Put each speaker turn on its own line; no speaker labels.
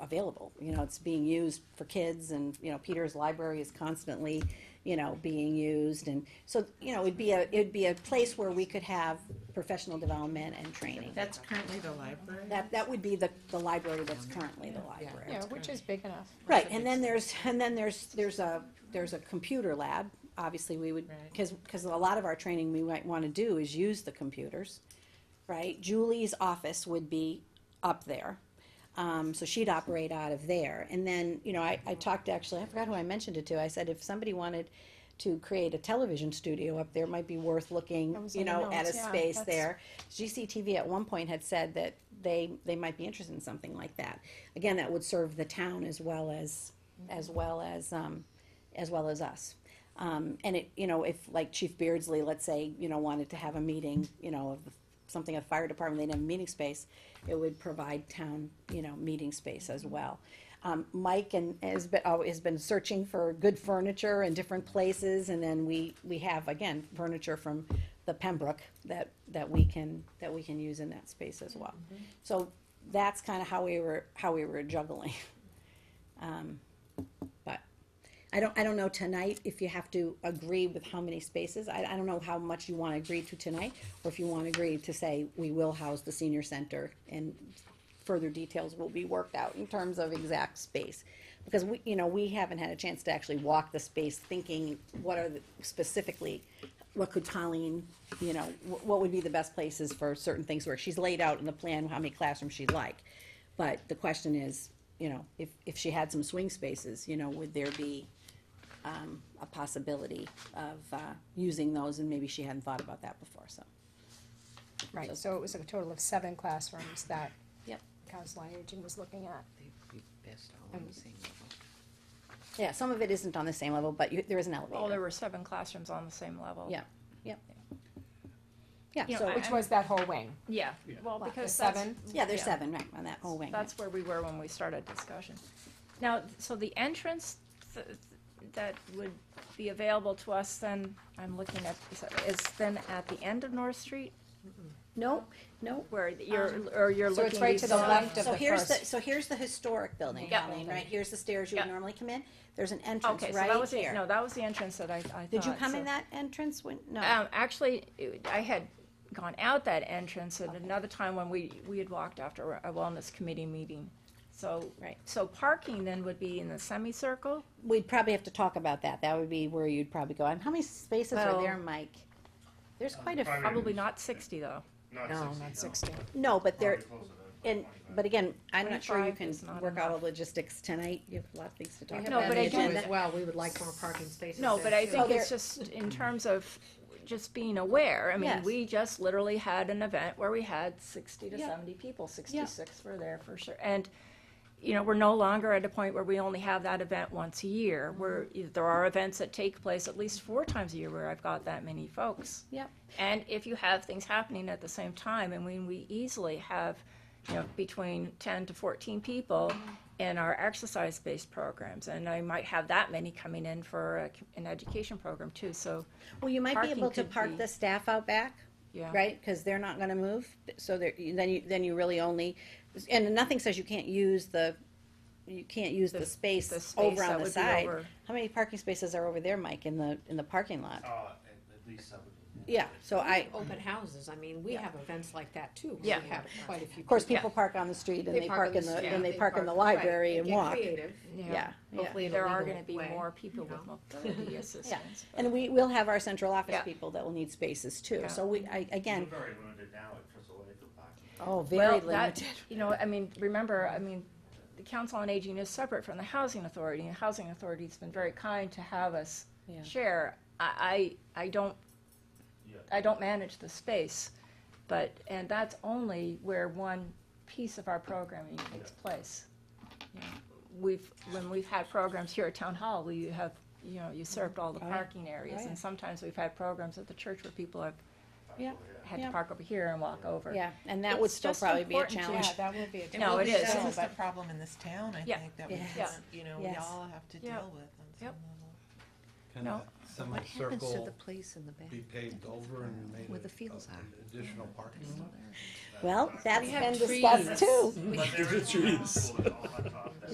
available. You know, it's being used for kids and, you know, Peter's library is constantly, you know, being used. And so, you know, it'd be a, it'd be a place where we could have professional development and training.
That's currently the library?
That, that would be the, the library that's currently the library.
Yeah, which is big enough.
Right, and then there's, and then there's, there's a, there's a computer lab, obviously we would,
Right.
because, because a lot of our training we might wanna do is use the computers, right? Julie's office would be up there, um, so she'd operate out of there, and then, you know, I, I talked, to- actually, I forgot who I mentioned it to, I said if somebody wanted to create a television studio up there, it might be worth looking,
That was
you
on the
know, at a
notes, yeah,
space
that's-
there. GCTV at one point had said that they, they might be interested in something like that. Again, that would serve the town as well as, as
Mm-hmm.
well as, um, as well as us. Um, and it, you know, if like Chief Beardsley, let's say, you know, wanted to have a meeting, you know, of the- something of the fire department, they'd have a meeting space, it would provide town, you know, meeting space as well. Um, Mike and, has been, oh, has been searching for good furniture in different places, and then we, we have, again, furniture from the Pembroke that, that we can, that we can use in that space as well. So that's kind of how we were, how we were juggling. Um, But I don't, I don't know tonight if you have to agree with how many spaces. I, I don't know how much you want to agree to tonight, or if you want to agree to say, we will house the senior center and further details will be worked out in terms of exact space. Because we, you know, we haven't had a chance to actually walk the space thinking, what are the, specifically, what could Colleen, you know, wh- what would be the best places for certain things where she's laid out in the plan how many classrooms she'd like. But the question is, you know, if, if she had some swing spaces, you know, would there be, um, a possibility of, uh, using those? And maybe she hadn't thought about that before, so.
Right, so it was a total of seven classrooms that
Yep.
Council on Aging was looking at.
Yeah, some of it isn't on the same level, but you, there is an
Oh, there
elevator.
were seven classrooms on the same level.
Yeah, yeah. Yeah,
You know,
so,
I-
Which was that whole wing,
Yeah, well,
What,
because
the
that's,
seven?
yeah, there's
yeah.
seven, Oh, right, on that whole wing.
that's where we were when we started discussion. Now, so the entrance th- th- that would be available to us then, I'm looking at, is then at the end of North Street?
No, no.
Where you're,
Um,
or you're
so it's
looking.
right to the
beside-
left of
So
the
here's the,
first.
so here's the historic building,
Yeah.
Colleen, right? Here's the stairs you would
Yeah.
normally come in. There's an entrance
Okay, so that
right
was, the- no,
here.
that was the entrance that I, I thought.
Did you come
so-
in that entrance when, no?
Um, actually, it- I had gone out that entrance at another time when we, we had walked after a wellness committee meeting. So,
Right.
so parking then would be in the semicircle?
We'd probably have to talk about that. That would be where you'd probably go. And how many spaces are
Well-
there, Mike? There's quite a, few.
Probably-
Probably not sixty though.
No, Uh, not sixty.
no, but there,
Probably closer to
and,
25.
but again, I'm not sure you
25
can
is not
work out all
enough.
the logistics tonight. You have a lot of things to talk
We
about.
have
No,
that
but I
issue as
think that-
well, we would like more parking spaces.
No,
there,
but I
too.
think
Oh, there-
it's just in terms of just being aware. I mean,
Yes.
we just literally had an event where we had sixty to
Yeah.
seventy people, sixty-six were there for sure. And, you know, we're no longer at a point where we only have that event once a year. Where
Mm-hmm.
there are events that take place at least four times a year where I've got that many folks.
Yep.
And if you have things happening at the same time, I mean, we easily have, you know, between ten to fourteen people in our exercise-based programs, and I might have that many coming in for a, an education program too, so,
Well, you might be
Parking
able to
could
park
be-
the staff out back,
yeah.
right? Because they're not gonna move, so there, you- then you, then you really only, and nothing says you can't use the, you can't use the
The- the
space
space
over
that
on the
would be
side.
over.
How many parking spaces are over there, Mike, in the, in the parking lot?
Uh, at, at least seven.
Yeah, so I,
Open houses, I mean, we have events like that too. where
Yeah.
We have quite a few.
of course, people park on the street and they park in the,
street,
and they park in the
right,
library
they
and
get
walk.
creative,
Yeah, yeah.
Hopefully in a
There are
legal
gonna be
way.
more people with mobility assistance. but-
And we, we'll have our central office
Yeah.
people that will need spaces too.
Yeah.
So we, I, again,
We're very limited now at Crystal Lake for parking.
oh,
Well,
very
that-
limited.
You know, I mean, remember, I mean, the Council on Aging is separate from the Housing Authority, and the Housing Authority's been very kind to have us
Yeah.
share. I, I, I don't,
Yeah.
I don't manage the space, but, and that's only where one piece of our programming takes place. You know, We've, when we've had programs here at Town Hall, we have, you know, usurped all the
Oh, yeah.
parking areas,
Oh, yeah.
and sometimes we've had programs at the church where people have
Yeah.
had to
Yeah.
park over here and walk over.
Yeah, and that would
It's
still
just
probably be a
important to-
challenge.
Yeah, that would be a.
No,
total
it is.
show,
This is the
but-
problem in this town, I
Yeah.
think, that we
Yeah.
Yeah.
haven't, you know, we
Yes.
all have to
Yeah.
deal with on some
Yep.
level.
Can
No.
that
What happens to the
semicircle
place in the back?
be paved over and made
Where
a-
the fields
a-
are.
an additional parking lot?
Well, that's
have
been
trees.
discussed too.
But there is a pool and all that talk.